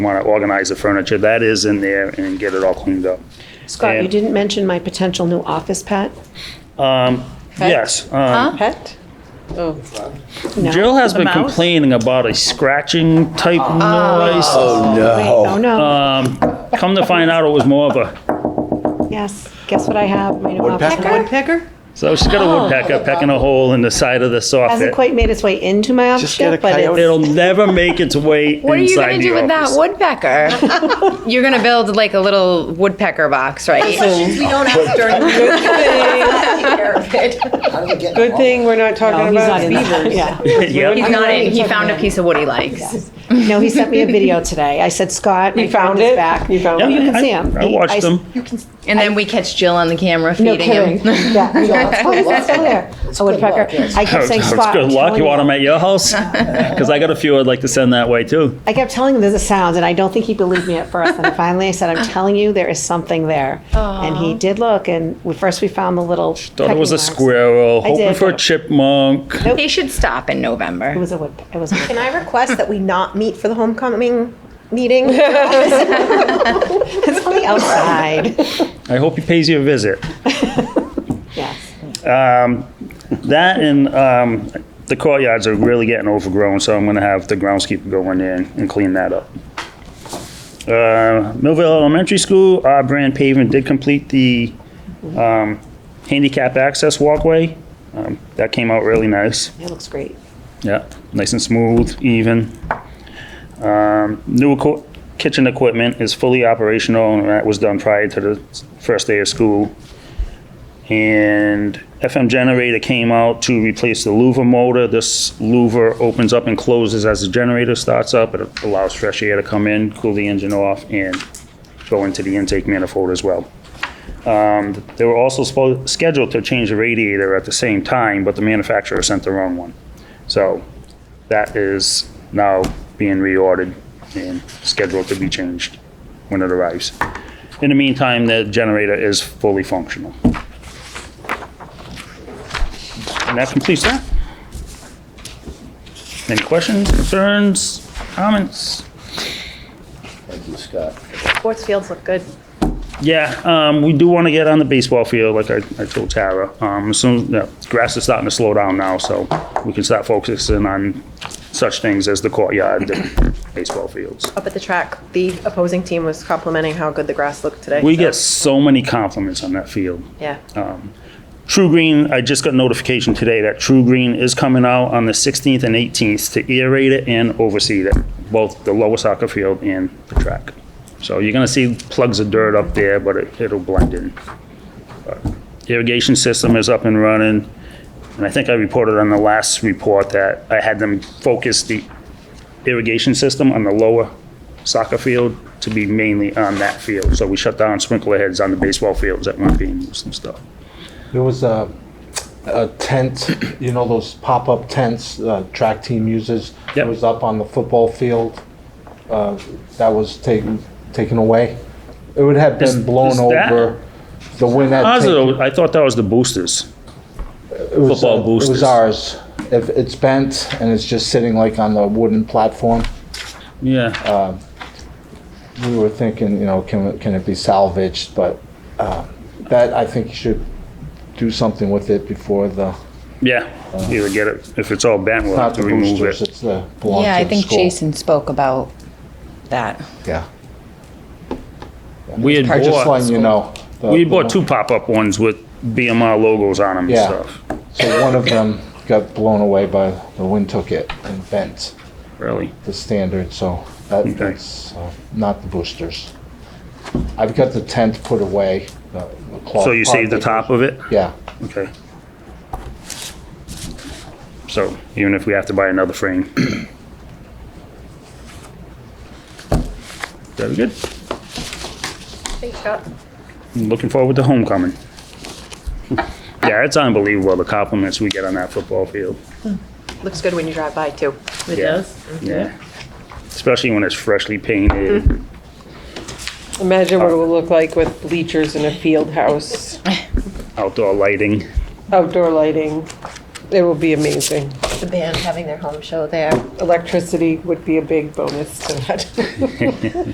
want to organize the furniture, that is in there and get it all cleaned up. Scott, you And- didn't mention my potential new office pet. Yes, um, Pet? Oh. No. Jill has The been mouse? complaining about a scratching type noise. Um, Oh, Wait, Oh, no. Uh, no. Come to find out, it was more of a, Yes. Guess what I have? My new office Woodpecker? pet. Woodpecker? so she's got a woodpecker pecking a hole in the side of the Hasn't soffit. quite made its way into my office Just get a yet, but coyote. it's, It'll never make its way What are you inside gonna do the with that office. woodpecker? You're gonna build like a little woodpecker box, right? We don't ask during the Good thing, good thing we're not talking he's not about in that. beavers. Yeah. He's Yep, not in. He found a piece of what he likes. No, he sent me a video today. I said, Scott, my You found friend is it? back. You found No, you it? can I- see him. I He- watched s- them. And then we catch Jill on the camera No feeding kidding. him. Yeah. we go, "Oh, it's still there." A woodpecker. I kept saying, It's Scott. good I'm luck, telling you you." want them at your house? Because I got a few I'd like to send that way too. I kept telling him there's a sound, and I don't think he believed me at first. And finally, I said, "I'm telling you, there is something there." And he did look, and we, first we found the little. Thought it was a squirrel, hoping did. for a chipmunk. They should stop in November. It was a wood. It was. A wood. Can I request that we not meet for the homecoming meeting? it's on the outside. I hope he pays you a visit. yes. That and um, the courtyards are really getting overgrown, so I'm gonna have the groundskeeper go in there and and clean that up. Uh, Millville Elementary School, our brand pavement did complete the um, handicap access walkway. Um, That came out really nice. It looks great. Yeah, nice and smooth, even. Um, New equi- kitchen equipment is fully operational, and that was done prior to the s- first day of school. And FM generator came out to replace the louver motor. This louver opens up and closes as the generator starts up. It allows fresh air to come in, cool the engine off, and go into the intake manifold as well. Um, They were also spo- scheduled to change the radiator at the same time, but the manufacturer sent the wrong one. So that is now being reordered and scheduled to be changed when it arrives. In the meantime, the generator is fully functional. And that completes that. Any questions, concerns, comments? Thank you, Scott. Sports fields look good. Yeah, um, we do want to get on the baseball field, like I, I told Tara. Um, soon, yeah, grass is starting to slow down now, so we can start focusing on such things as the courtyard, and baseball fields. Up at the track, the opposing team was complimenting how good the grass looked today. We so, get Oh. so many compliments on that field. Yeah. True Green, I just got notification today that True Green is coming out on the 16th and 18th to aerate it and overseed it, both the lower soccer field and the track. So you're gonna see plugs of dirt up there, but it- it'll blend in. But Irrigation system is up and running, and I think I reported on the last report that I had them focus the irrigation system on the lower soccer field to be mainly on that field. So we shut down sprinkler heads on the baseball fields that weren't being used and stuff. There was a, a tent, you know, those pop-up tents the track team uses. Yep. It was up on the football field. Uh, That was taken, taken away. It would have Is- been blown is that- over. The wind had taken. Positive, I thought that was the boosters. it was, football uh, It boosters. was ours. If it's bent and it's just sitting like on the wooden platform, Yeah. we were thinking, you know, can, can it be salvaged? But uh, that, I think you should do something with it before the, Yeah, either get it, if it's all bent, we'll have not to the remove boosters, it. it's the, belongs Yeah, I to the think school. Jason spoke about that. Yeah. We had I'm just bought, letting you know. the- we had bought two pop-up ones with BMR logos on them and Yeah. stuff. So one of them got blown away by, the wind took it and bent Really? the standard, so that- Okay. that's uh, not the boosters. I've got the tent put away. the- the cloth So you part saved the that top goes- of it? Yeah, Okay. So even if we have to buy another frame. Very good. Thanks, Scott. Looking forward to homecoming. Yeah, it's unbelievable the compliments we get on that football field. Looks good when you drive by too. It Yeah. does. Yeah. Especially when it's freshly painted. Imagine what it will look like with bleachers in a field house, outdoor lighting. outdoor lighting. It will be amazing. the band having their home show there. Electricity would be a big bonus to that.